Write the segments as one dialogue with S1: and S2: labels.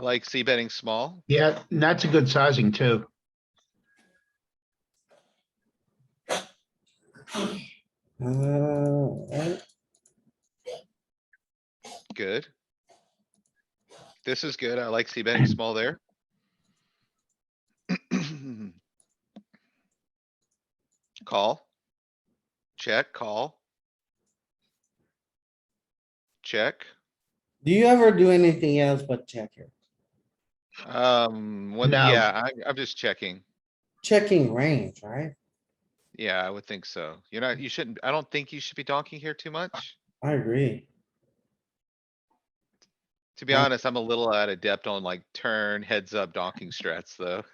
S1: like c betting small.
S2: Yeah, and that's a good sizing too.
S3: Uh, alright.
S1: Good. This is good. I like c betting small there. Call. Check, call. Check.
S3: Do you ever do anything else but check here?
S1: Um, when,
S2: No.
S1: yeah, I, I'm just checking.
S3: Checking range, right?
S1: Yeah, I would think so. You're not, you shouldn't, I don't think you should be donking here too much.
S3: I agree.
S1: To be
S3: Yeah.
S1: honest, I'm a little out of depth on like turn, heads up, donking strats, though.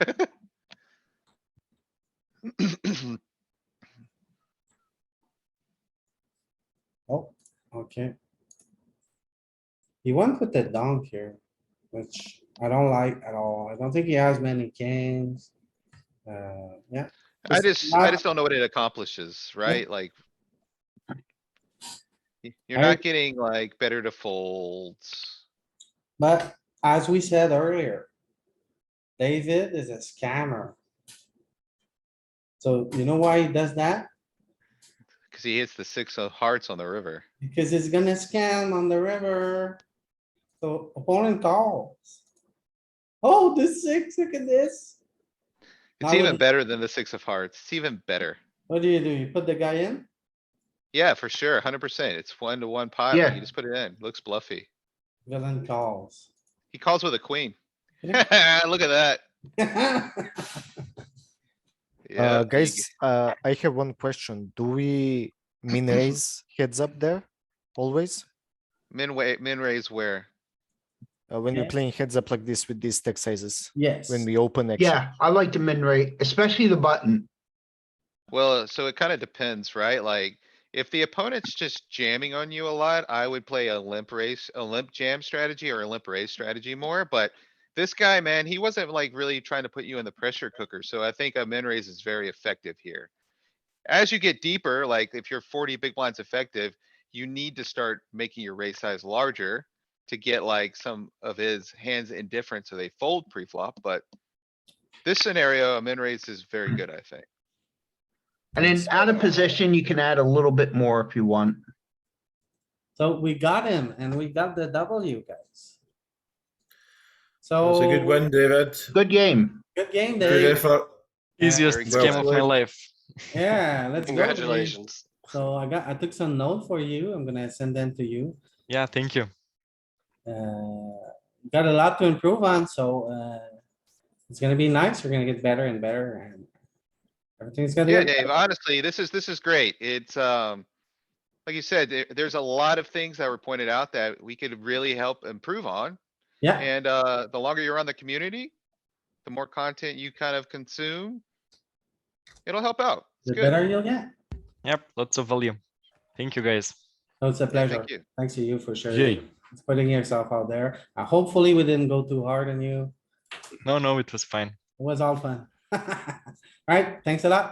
S3: Oh, okay. He went with the donk here, which I don't like at all. I don't think he has many kings. Uh, yeah,
S1: I
S3: It's
S1: just, I
S3: not-
S1: just don't know what it accomplishes, right? Like. y- You're
S3: I-
S1: not getting like better to folds.
S3: but as we said earlier. David is a scammer. So you know why he does that?
S1: Cause he hits the six of hearts on the river.
S3: Because it's gonna scan on the river. So opponent calls. Oh, the six, look at this. Now
S1: It's
S3: what
S1: even
S3: do-
S1: better than the six of hearts. It's even better.
S3: What do you do? You put the guy in?
S1: Yeah, for sure. Hundred percent. It's one to one pot.
S2: Yeah.
S1: like, You just put it in. Looks bluffy.
S3: Villain calls.
S1: He calls with a queen. Look at that. Yeah,
S4: Uh,
S1: you g-
S4: guys, uh, I have one question. Do we min raise heads up there always?
S1: Min way, min raise where?
S4: Uh, when
S3: Yeah.
S4: we're playing heads up like this with these stack sizes,
S3: Yes,
S4: when we open action?
S2: Yeah, I like the min rate, especially the button.
S1: Well, so it kinda depends, right? Like, if the opponent's just jamming on you a lot, I would play a limp race, a limp jam strategy or a limp raise strategy more, but. This guy, man, he wasn't like really trying to put you in the pressure cooker, so I think a min raise is very effective here. As you get deeper, like if you're forty big blinds effective, you need to start making your raise size larger. To get like some of his hands indifferent, so they fold pre-flop, but. This scenario, a min raise is very good, I think.
S2: And then out of position, you can add a little bit more if you want.
S3: so we got him and we got the W guys.
S5: That
S3: So.
S5: was a good one, David.
S2: Good game.
S3: Good game,
S5: Good
S3: Dave.
S5: effort.
S6: Easiest
S1: very
S5: good.
S6: game of my
S5: Well
S6: life.
S3: Yeah, let's go. Dave.
S6: Congratulations.
S3: So I got, I took some notes for you. I'm gonna send them to you.
S6: Yeah, thank you.
S3: uh, got a lot to improve on, so, uh, it's gonna be nice. We're gonna get better and better and everything's gonna
S1: Yeah,
S3: get
S1: Dave,
S3: better.
S1: honestly, this is, this is great. It's, um, like you said, there, there's a lot of things that were pointed out that we could really help improve on.
S3: Yeah,
S1: And, uh, the longer you're on the community, the more content you kind of consume, it'll help out.
S3: the
S1: It's good.
S3: better you'll get.
S6: Yep, lots of value. Thank you, guys.
S3: So it's a
S1: Yeah,
S3: pleasure.
S1: Thank you.
S3: Thanks to you for sure.
S6: Yay.
S3: Putting yourself out there. Uh, Hopefully we didn't go too hard on you.
S6: No, no, it was fine.
S3: It was all fun. Alright, thanks a lot.